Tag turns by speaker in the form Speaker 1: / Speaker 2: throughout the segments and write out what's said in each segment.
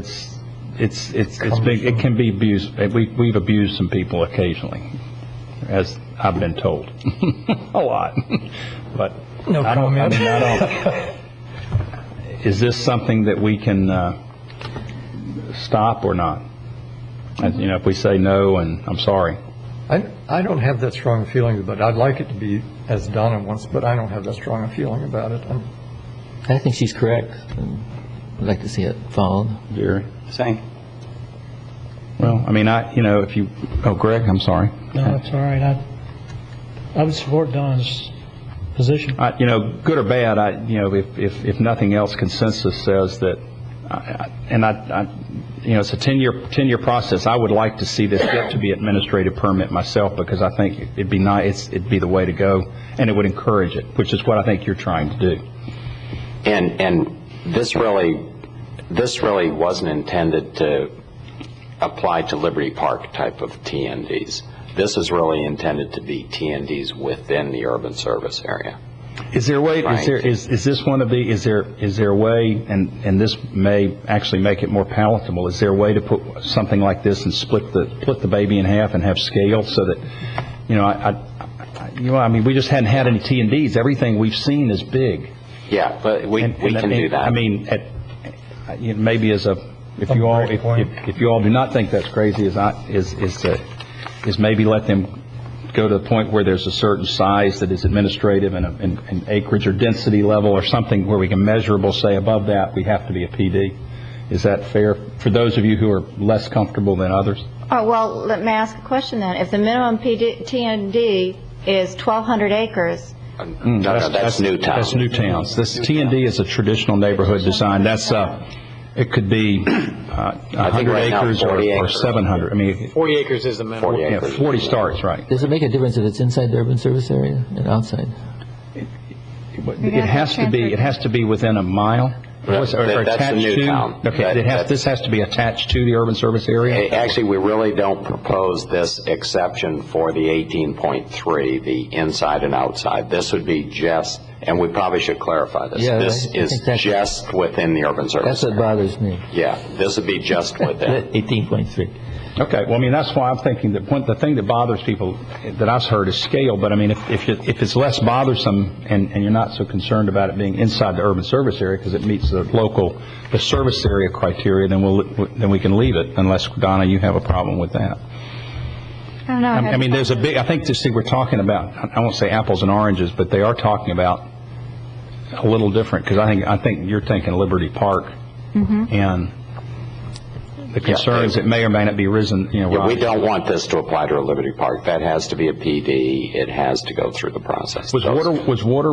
Speaker 1: It's, it's, it's, it's big, it can be abused, we, we've abused some people occasionally, as I've been told, a lot, but.
Speaker 2: No
Speaker 1: I don't- I
Speaker 2: comment.
Speaker 1: mean, I don't- Is this something that we can, uh, stop or not? As, You know, if we say no, and I'm sorry.
Speaker 2: I, I don't have that strong a feeling, but I'd like it to be as Donna wants, but I don't have that strong a feeling about it. I'm-
Speaker 3: I think she's correct. and I'd like to see it followed.
Speaker 1: Jerry? Same. Well, I mean, I, you know, if you, oh, Greg, I'm sorry.
Speaker 4: No, it's all right. I, I would support Don's position.
Speaker 1: I- You know, good or bad, I, you know, if, if, if nothing else, consensus says that, I- I- and I, I, you know, it's a 10-year, 10-year process. I would like to see this get to be administrative permit myself, because I think it'd be nice, it'd be the way to go, and it would encourage it, which is what I think you're trying to do.
Speaker 5: And, and this really, this really wasn't intended to apply to Liberty Park type of TNDs. This is really intended to be TNDs within the urban service area.
Speaker 1: Is there a way, is
Speaker 5: Right.
Speaker 1: there, is, is this one of the, is there, is there a way, and, and this may actually make it more palatable, is there a way to put something like this and split the, split the baby in half and have scale so that, you know, I, I, I- you know, I mean, we just hadn't had any T and Ds. Everything we've seen is big.
Speaker 5: Yeah, but we,
Speaker 1: And-
Speaker 5: we
Speaker 1: and I
Speaker 5: can
Speaker 1: mean-
Speaker 5: do that.
Speaker 1: I mean, at, I- you know, maybe as a, if you all, if, if- if you all do not think that's crazy, is I, is, is, uh, is maybe let them go to the point where there's a certain size that is administrative and, a- and and acreage or density level or something where we can measurable say above that, we have to be a PD. Is that fair for those of you who are less comfortable than others?
Speaker 6: Oh, well, let me ask a question then. If the minimum PD, TND is 1,200 acres,
Speaker 5: No, no, that's new town.
Speaker 1: That's new towns. This T and D is a traditional neighborhood design. That's, uh, it could be uh,
Speaker 5: I
Speaker 1: 100
Speaker 5: think right now
Speaker 1: acres or
Speaker 5: 40
Speaker 1: or
Speaker 5: acres.
Speaker 1: 700. I mean,
Speaker 7: 40 acres is the minimum.
Speaker 5: 40
Speaker 1: yeah,
Speaker 5: acres.
Speaker 1: 40 starts, right.
Speaker 3: Does it make a difference if it's inside the urban service area and outside?
Speaker 1: It has to be, it has to be within a mile?
Speaker 5: That-
Speaker 1: What's- or- or
Speaker 5: that's a
Speaker 1: attached
Speaker 5: new
Speaker 1: to-
Speaker 5: town.
Speaker 1: Okay,
Speaker 5: That-
Speaker 1: it has,
Speaker 5: that's-
Speaker 1: this has to be attached to the urban service area?
Speaker 5: A- Actually, we really don't propose this exception for the 18.3, the inside and outside. This would be just, and we probably should clarify this.
Speaker 3: Yeah,
Speaker 5: This
Speaker 3: I- I
Speaker 5: is
Speaker 3: think that's-
Speaker 5: just within the urban
Speaker 3: That's
Speaker 5: service.
Speaker 3: what bothers me.
Speaker 5: Yeah, this would be just within.
Speaker 3: 18.3.
Speaker 1: Okay, well, I mean, that's why I'm thinking that, one, the thing that bothers people that I've heard is scale, but I mean, if, if, it- if it's less bothersome and, and you're not so concerned about it being inside the urban service area because it meets the local, the service area criteria, then we'll, then we can leave it unless, Donna, you have a problem with that.
Speaker 6: I don't know.
Speaker 1: I I mean, there's a big, I think this thing we're talking about, I- I won't say apples and oranges, but they are talking about a little different, because I think, I think you're thinking Liberty Park and the concerns that may or may not be risen, you know,
Speaker 5: Yeah, we
Speaker 1: Rob,
Speaker 5: don't want this to apply to a Liberty Park. That has to be a PD. It has to go through the process.
Speaker 1: was
Speaker 5: Those-
Speaker 1: water, was water,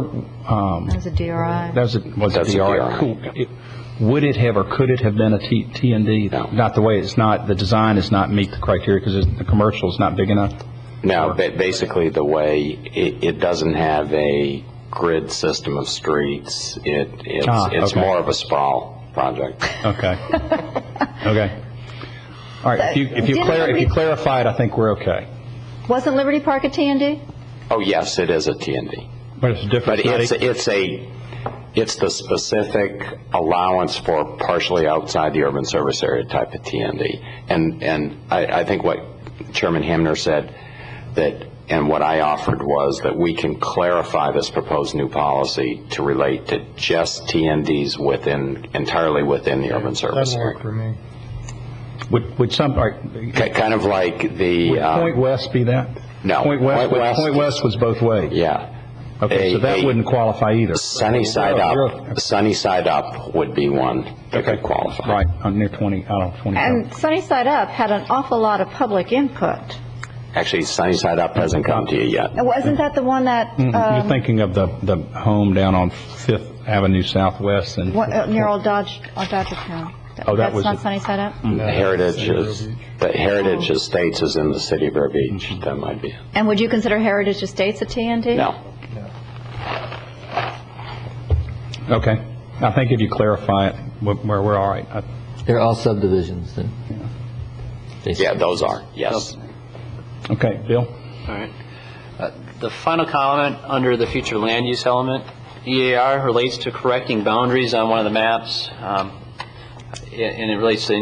Speaker 1: um,
Speaker 6: There's a DRI.
Speaker 1: that was, a- was it
Speaker 5: That's a
Speaker 1: DR?
Speaker 5: DRI,
Speaker 1: Cool.
Speaker 5: yeah.
Speaker 1: It- Would it have or could it have been a T, T and D?
Speaker 5: No.
Speaker 1: Not the way, it's not, the design is not meet the criteria, because the commercial is not big enough?
Speaker 5: No, ba- basically, the way, it, it doesn't have a grid system of streets. It,
Speaker 1: Ah,
Speaker 5: it's, it's
Speaker 1: okay.
Speaker 5: more of a sprawl project.
Speaker 1: Okay. Okay. All right, if you, if you
Speaker 6: Didn't
Speaker 1: clar, if
Speaker 6: we-
Speaker 1: you clarify it, I think we're okay.
Speaker 6: Wasn't Liberty Park a TND?
Speaker 5: Oh, yes, it is a TND.
Speaker 1: But it's
Speaker 5: But
Speaker 1: different.
Speaker 5: it's, it's a, it's the specific allowance for partially outside the urban service area type of TND. And, and I, I think what Chairman Hamner said, that, and what I offered was that we can clarify this proposed new policy to relate to just TNDs within, entirely within the urban service
Speaker 2: That'll work
Speaker 5: area.
Speaker 2: for me.
Speaker 1: Would, would some, all right,
Speaker 5: Ki- Kind of like the,
Speaker 1: would Point
Speaker 5: uh,
Speaker 1: West be that?
Speaker 5: No.
Speaker 1: Point West,
Speaker 5: Point
Speaker 1: was-
Speaker 5: West-
Speaker 1: Point West was both ways.
Speaker 5: uh, yeah.
Speaker 1: Okay, so
Speaker 5: A-
Speaker 1: that
Speaker 5: a-
Speaker 1: wouldn't qualify either.
Speaker 5: Sunny side
Speaker 1: Really?
Speaker 5: up, sunny side up would be one that
Speaker 1: Okay.
Speaker 5: could qualify.
Speaker 1: Right, on near 20, I don't know, 25.
Speaker 6: And Sunny Side Up had an awful lot of public input.
Speaker 5: Actually, sunny side up hasn't come to you yet.
Speaker 6: Now, Wasn't that the one that,
Speaker 1: Mm, You're
Speaker 6: um,
Speaker 1: thinking of the, the home down on Fifth Avenue Southwest and,
Speaker 6: what- uh, near old Dodge, old Dodger Town?
Speaker 1: Oh, that was it.
Speaker 6: That's not Sunny Side Up?
Speaker 2: No,
Speaker 5: Heritage
Speaker 2: City of Vero
Speaker 5: is,
Speaker 2: Beach.
Speaker 5: the Heritage Estates is in the city of Vero Beach. That might be,
Speaker 6: And would you consider Heritage Estates a TND?
Speaker 5: no.
Speaker 1: okay. I think if you clarify it, we're, we're all right. I-
Speaker 3: They're all subdivisions. then. They-
Speaker 5: Yeah, those are, yes.
Speaker 1: Okay, Bill?
Speaker 7: All right. Uh, The final comment under the future land use E element, EAR relates to correcting boundaries on one of the maps. Um, and it relates to the